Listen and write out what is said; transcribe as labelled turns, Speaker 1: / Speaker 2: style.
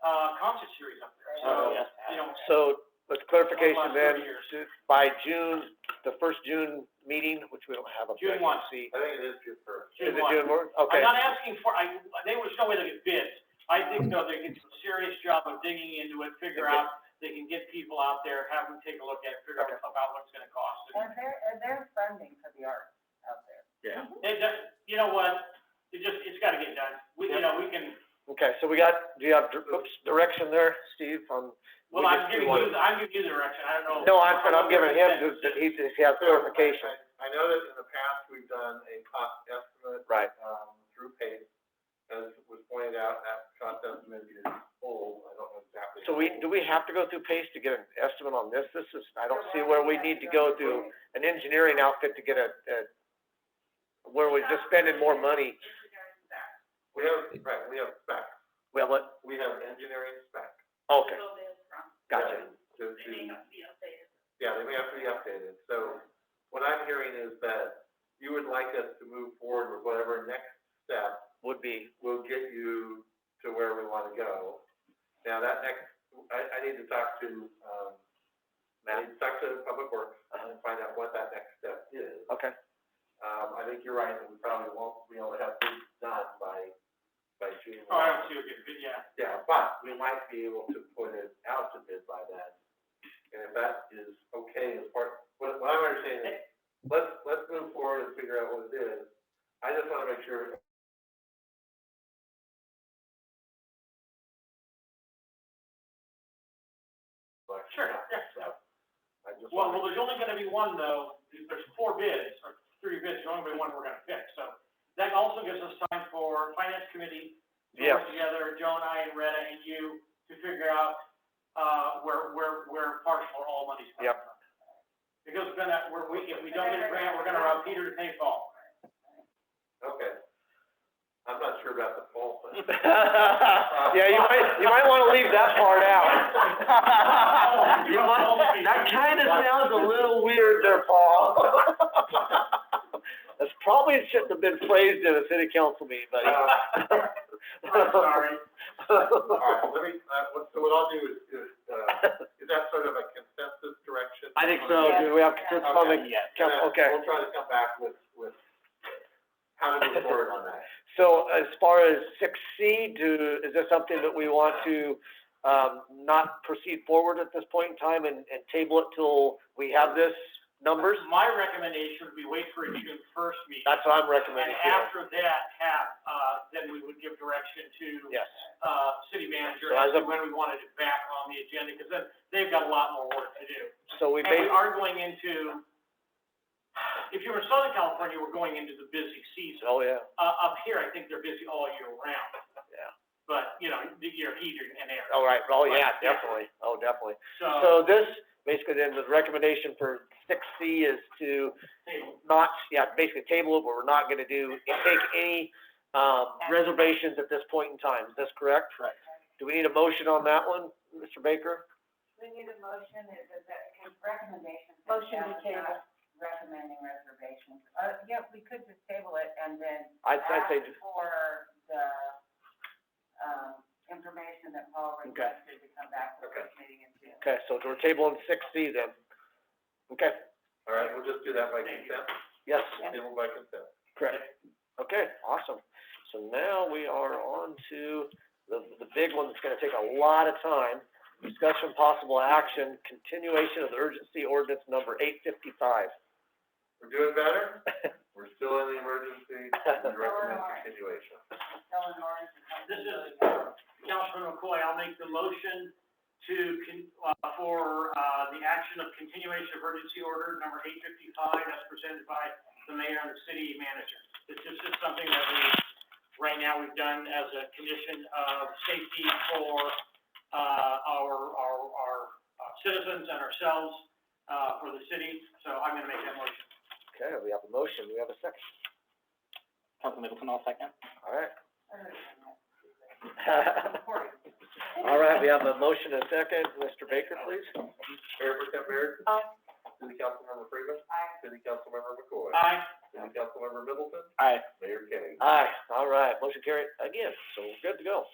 Speaker 1: uh, concert series up there, so,
Speaker 2: Oh,
Speaker 1: you know.
Speaker 2: So, but clarification
Speaker 1: Last
Speaker 2: then,
Speaker 1: three years.
Speaker 2: ju- by June, the first June meeting, which we don't have a
Speaker 1: June one.
Speaker 2: vacancy.
Speaker 3: I think it is June first.
Speaker 2: Is it
Speaker 1: one.
Speaker 2: June one?
Speaker 1: I'm
Speaker 2: Okay,
Speaker 1: not asking for, I, they was no way to get bids. I think though they can do a serious job of digging into it, figure
Speaker 2: Okay.
Speaker 1: out, they can get people out there, have them take a look at it, figure out about what it's gonna cost. And
Speaker 4: And there, and there's funding for the arts out there.
Speaker 3: Yeah.
Speaker 1: It just, you know what, it just, it's gotta get done. We, you know, we can,
Speaker 2: okay, so we got, do you have, dir- oops, direction there, Steve, on?
Speaker 1: well,
Speaker 2: We
Speaker 1: I'm
Speaker 2: just- we
Speaker 1: giving
Speaker 2: want-
Speaker 1: you, the- I'm giving you the direction, I don't know.
Speaker 2: No, I'm, but I'm
Speaker 1: what
Speaker 2: giving him,
Speaker 1: that
Speaker 2: the-
Speaker 1: is.
Speaker 2: the- he, he has clarification.
Speaker 3: I I know that in the past, we've done a cost estimate,
Speaker 2: Right,
Speaker 3: um, through PACE, as was pointed out, that cost estimate is full, I don't know exactly.
Speaker 2: so we, do we have to go through PACE to get an estimate on this? This is, I don't see where we need to go through an engineering outfit to get a, a, where we're just spending more money.
Speaker 3: We have, right, we have spec,
Speaker 2: Well, what,
Speaker 3: we have engineering spec.
Speaker 2: okay, gotcha.
Speaker 3: To, to. Yeah, they may have to be updated, so what I'm hearing is that you would like us to move forward with whatever next step
Speaker 2: Would be,
Speaker 3: will get you to where we wanna go. Now, that next, I, I need to talk to, um, I need to talk to Public Works and find out what that next step is.
Speaker 2: okay,
Speaker 3: Um, I think you're right, that we probably won't be able to have things done by, by June.
Speaker 1: Oh, I don't see a good, bid, yeah.
Speaker 3: Yeah, but we might be able to put it out to bid by then. And if that is okay as part, what, what I'm understanding is, let's, let's move forward and figure out what it is. I just wanna make sure
Speaker 1: Sure, yeah, so.
Speaker 3: I just
Speaker 1: Well, well,
Speaker 3: want,
Speaker 1: there's only gonna be one though, there's four bids, or three bids, there's only gonna be one we're gonna pick, so. That also gives us time for finance committee to
Speaker 2: yes,
Speaker 1: work together, Joan, I, and Retta, and you, to figure out, uh, where, where, where partial or all money's coming
Speaker 2: Yep.
Speaker 1: from. Because then that, we're, we, if we don't get a grant, we're gonna rob Peter to pay Paul.
Speaker 3: okay. I'm not sure about the poll thing.
Speaker 2: Yeah, you might, you might wanna leave that part out. You might- that kinda sounds a little weird there, Paul. That's probably, it shouldn't have been phrased in a city council meeting, buddy.
Speaker 3: Uh,
Speaker 1: I'm sorry.
Speaker 3: All right, let me, uh, what- so what I'll do is, is, uh, is that sort of a consensus direction?
Speaker 2: I think so, do we have consensus on the council,
Speaker 3: And then
Speaker 2: okay.
Speaker 3: We'll try to come back with, with how to move forward on that.
Speaker 2: So as far as six C, do, is this something that we want to, um, not proceed forward at this point in time and, and table it till we have this numbers?
Speaker 1: My recommendation would be wait for a June first meeting,
Speaker 2: That's what I'm
Speaker 1: and
Speaker 2: recommending too.
Speaker 1: after that, have, uh, then we would give direction to,
Speaker 2: Yes,
Speaker 1: uh, city manager
Speaker 2: So as
Speaker 1: as to
Speaker 2: of-
Speaker 1: when we wanted it back on the agenda, because then they've got a lot more work to do.
Speaker 2: so we
Speaker 1: And we
Speaker 2: may,
Speaker 1: are going into, if you were in Southern California, we're going into the busy season.
Speaker 2: oh, yeah,
Speaker 1: Uh, up here, I think they're busy all year round,
Speaker 2: yeah,
Speaker 1: but, you know, the- your heat and air.
Speaker 2: all right, oh, yeah, definitely, oh, definitely.
Speaker 1: So,
Speaker 2: So this, basically then the recommendation for six C is to
Speaker 1: table.
Speaker 2: not, yeah, basically table it, but we're not gonna do, take any, um, reservations at this point in time, is this correct? Correct. Do we need a motion on that one, Mr. Baker?
Speaker 4: We need a motion, is it, that, because recommendations.
Speaker 5: Motion to
Speaker 4: Now,
Speaker 5: table.
Speaker 4: not Recommending reservations. Uh, yeah, we could just table it and then
Speaker 2: I'd, I'd
Speaker 4: ask
Speaker 2: say, just-
Speaker 4: for the, um, information that Paul
Speaker 2: Okay.
Speaker 4: requested to come back to
Speaker 3: Okay.
Speaker 4: this meeting in June.
Speaker 2: okay, so we're tabling six C then. Okay,
Speaker 3: All right, we'll just do that by consent,
Speaker 2: yes,
Speaker 3: table by consent.
Speaker 2: correct. Okay, awesome. So now we are on to the, the big one that's gonna take a lot of time. Discussion possible action, continuation of the urgency ordinance number eight fifty-five.
Speaker 3: We're doing better, we're still in the emergency, we recommend
Speaker 4: Alright.
Speaker 3: continuation.
Speaker 4: Eleanor, is it-
Speaker 1: This is, uh, Councilman McCoy, I'll make the motion to, con- uh, for, uh, the action of continuation of emergency order number eight fifty-five as presented by the mayor and the city manager. This is just something that we, right now, we've done as a condition of safety for, uh, our, our, our uh, citizens and ourselves, uh, for the city, so I'm gonna make that motion.
Speaker 2: Okay, we have a motion, we have a second,
Speaker 6: Council Middleton, all second.
Speaker 2: all right.
Speaker 4: Cory.
Speaker 2: All right, we have a motion and a second, Mr. Baker, please.
Speaker 3: Mayor Pro Tem Barrett?
Speaker 5: Aye.
Speaker 3: City Councilmember Freeman?
Speaker 4: Aye.
Speaker 3: City Councilmember McCoy?
Speaker 1: Aye.
Speaker 3: City Councilmember Middleton?
Speaker 6: Aye.
Speaker 3: Mayor Kay?
Speaker 2: Aye, all right, motion carried again, so we're good to go.